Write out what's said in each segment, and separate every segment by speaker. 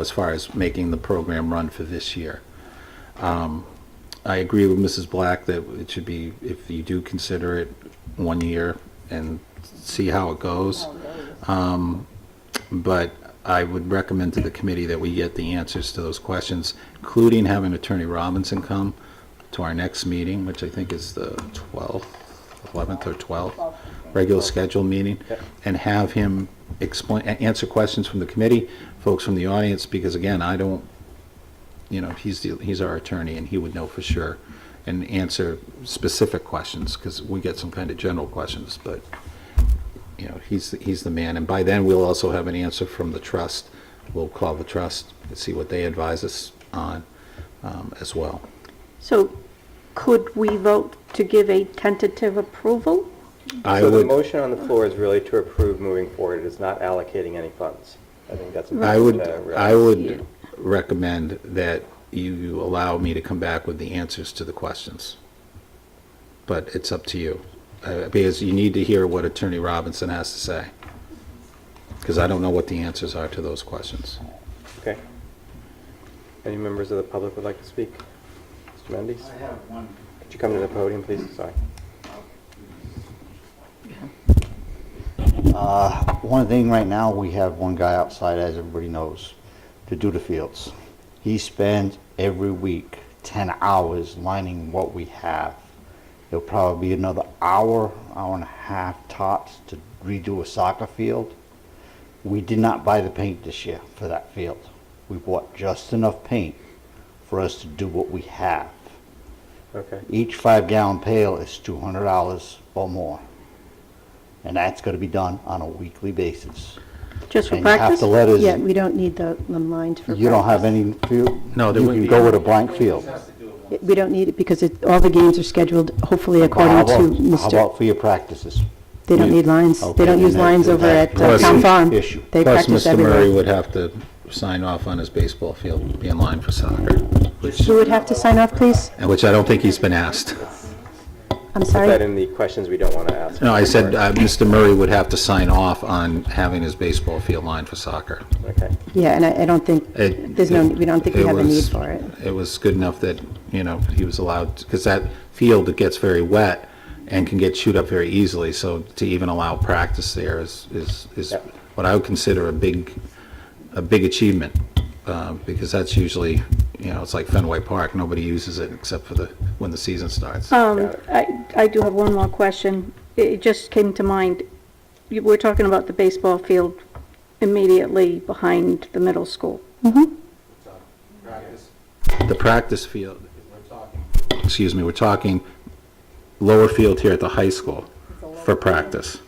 Speaker 1: as far as making the program run for this year. Um, I agree with Mrs. Black that it should be, if you do consider it, one year and see how it goes. Um, But I would recommend to the committee that we get the answers to those questions, including having Attorney Robinson come to our next meeting, which I think is the 12th, 11th or 12th, regular scheduled meeting, and have him explain, a- answer questions from the committee, folks from the audience, because again, I don't, you know, he's, the he's our attorney and he would know for sure and answer specific questions, because we get some kind of general questions, but you know, he's, he's the man. And by then, we'll also have an answer from the trust. We'll call the trust and see what they advise us on um, as well.
Speaker 2: So could we vote to give a tentative approval?
Speaker 1: I
Speaker 3: So the
Speaker 1: would,
Speaker 3: motion on the floor is really to approve moving forward, it is not allocating any funds. I think that's. uh,
Speaker 1: I would,
Speaker 3: important to
Speaker 1: I
Speaker 3: realize.
Speaker 1: would recommend that you allow me to come back with the answers to the questions. But it's up to you, Uh, because you need to hear what Attorney Robinson has to say. Because I don't know what the answers are to those questions.
Speaker 3: Okay. Any members of the public would like to speak? Mr. Mendes?
Speaker 4: I have one.
Speaker 3: Could you come to the podium, please? Sorry.
Speaker 4: Uh, One thing right now, we have one guy outside, as everybody knows, to do the fields. He spends every week 10 hours lining what we have. It'll probably be another hour, hour and a half tops to redo a soccer field. We did not buy the paint this year for that field. We bought just enough paint for us to do what we have.
Speaker 3: Okay.
Speaker 4: Each five gallon pail is two hundred dollars or more. And that's gonna be done on a weekly basis.
Speaker 2: Just for
Speaker 4: And you have
Speaker 2: practice?
Speaker 4: to let us-
Speaker 2: Yeah, we don't need the the lines for practice.
Speaker 4: You don't have any field?
Speaker 1: No, there
Speaker 4: You
Speaker 1: wouldn't
Speaker 4: can
Speaker 1: be
Speaker 4: go
Speaker 1: any.
Speaker 4: with a blank field.
Speaker 2: We don't need it because it, all the games are scheduled hopefully
Speaker 4: How
Speaker 2: according
Speaker 4: about-
Speaker 2: to Mr.
Speaker 4: How about for your practices?
Speaker 2: They don't need lines.
Speaker 4: Okay,
Speaker 2: They don't
Speaker 4: then
Speaker 2: use
Speaker 4: that-
Speaker 2: lines
Speaker 4: then
Speaker 2: over
Speaker 4: that-
Speaker 2: at uh,
Speaker 4: that's
Speaker 2: Town
Speaker 4: the
Speaker 2: Farm.
Speaker 4: Issue.
Speaker 2: They
Speaker 1: Plus,
Speaker 2: practice
Speaker 1: Mr. Murray
Speaker 2: everywhere.
Speaker 1: would have to sign off on his baseball field, be in line for soccer, which,
Speaker 2: Who would have to sign off, please?
Speaker 1: which I don't think he's been asked.
Speaker 2: I'm
Speaker 3: Put that
Speaker 2: sorry.
Speaker 3: in the questions we don't want to ask.
Speaker 1: No, I said, uh, Mr. Murray would have to sign off on having his baseball field lined for soccer.
Speaker 3: Okay.
Speaker 2: Yeah, and I I don't think,
Speaker 1: It-
Speaker 2: there's no, we don't think we
Speaker 1: it
Speaker 2: have a need
Speaker 1: was-
Speaker 2: for it.
Speaker 1: It was good enough that, you know, he was allowed, because that field, it gets very wet and can get chewed up very easily, so to even allow practice there is, is, is
Speaker 3: Yep.
Speaker 1: what I would consider a big, a big achievement, uh, because that's usually, you know, it's like Fenway Park, nobody uses it except for the, when the season starts.
Speaker 5: Um, I, I do have one more question. It it just came to mind. You- We're talking about the baseball field immediately behind the middle school.
Speaker 1: The practice field, excuse me, we're talking lower field here at the high school for practice.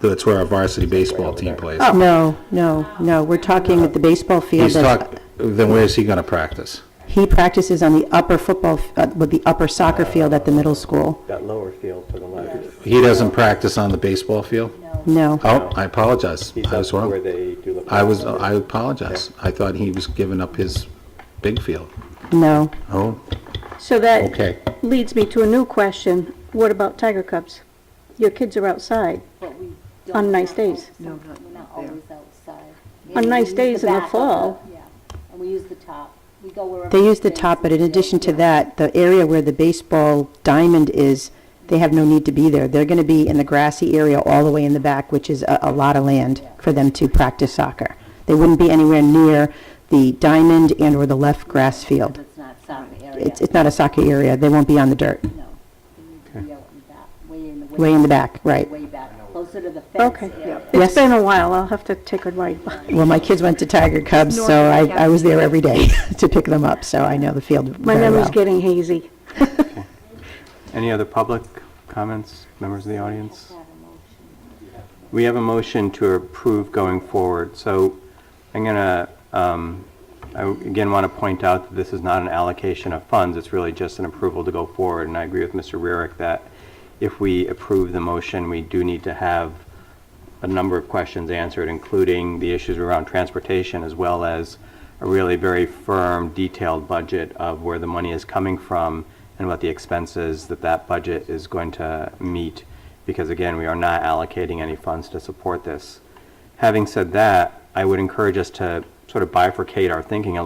Speaker 1: That's where our varsity baseball team plays.
Speaker 2: No, no, no, we're talking at Oh, the baseball field.
Speaker 1: Oh. He's
Speaker 2: that's-
Speaker 1: talk, then where is he gonna practice?
Speaker 2: He practices on the upper football, f- uh, with the upper soccer field at the middle school.
Speaker 3: That lower field to the left.
Speaker 1: He doesn't practice on the baseball field?
Speaker 2: No.
Speaker 1: Oh, I apologize.
Speaker 3: He's
Speaker 1: I was
Speaker 3: up where
Speaker 1: wrong.
Speaker 3: they do the.
Speaker 1: I was, I apologize. I thought he was giving up his big field.
Speaker 2: No,
Speaker 1: Oh,
Speaker 5: So that
Speaker 1: okay.
Speaker 5: leads me to a new question. What about Tiger Cubs? Your kids are outside
Speaker 6: But we don't.
Speaker 5: on nice days.
Speaker 6: No, not. We're not always outside.
Speaker 5: On
Speaker 6: Yeah,
Speaker 5: nice
Speaker 6: we use
Speaker 5: days in the
Speaker 6: back of
Speaker 5: fall.
Speaker 6: Yeah, and we use the top. We go wherever.
Speaker 2: they use the
Speaker 6: fits.
Speaker 2: top, but in addition to
Speaker 6: Yeah.
Speaker 2: that, the area where the baseball diamond is, they have no need to be there. They're going to be in the grassy area all the way in the back, which is a, a lot of land for them to practice soccer. They wouldn't be anywhere near the diamond and/or the left grass field.
Speaker 6: It's not soccer area.
Speaker 2: It's, it's not a soccer area, they won't be on the dirt,
Speaker 6: No. We need to be out in back, way in the.
Speaker 2: way in the back, right.
Speaker 6: Way back, closer to the fence
Speaker 5: Okay.
Speaker 6: area.
Speaker 5: It's been a while. I'll have to take a ride by.
Speaker 2: Well, my kids went to Tiger Cubs, so I, I was there every day to pick them up, so I know the field
Speaker 5: My
Speaker 2: very well.
Speaker 5: memory's getting hazy.
Speaker 3: Any other public comments, members of the audience? We have a motion to approve going forward, so I'm going to, I again want to point out that this is not an allocation of funds, it's really just an approval to go forward, and I agree with Mr. Rarick that if we approve the motion, we do need to have a number of questions answered, including the issues around transportation, as well as a really very firm, detailed budget of where the money is coming from and what the expenses that that budget is going to meet, because again, we are not allocating any funds to support this. Having said that, I would encourage us to sort of bifurcate our thinking a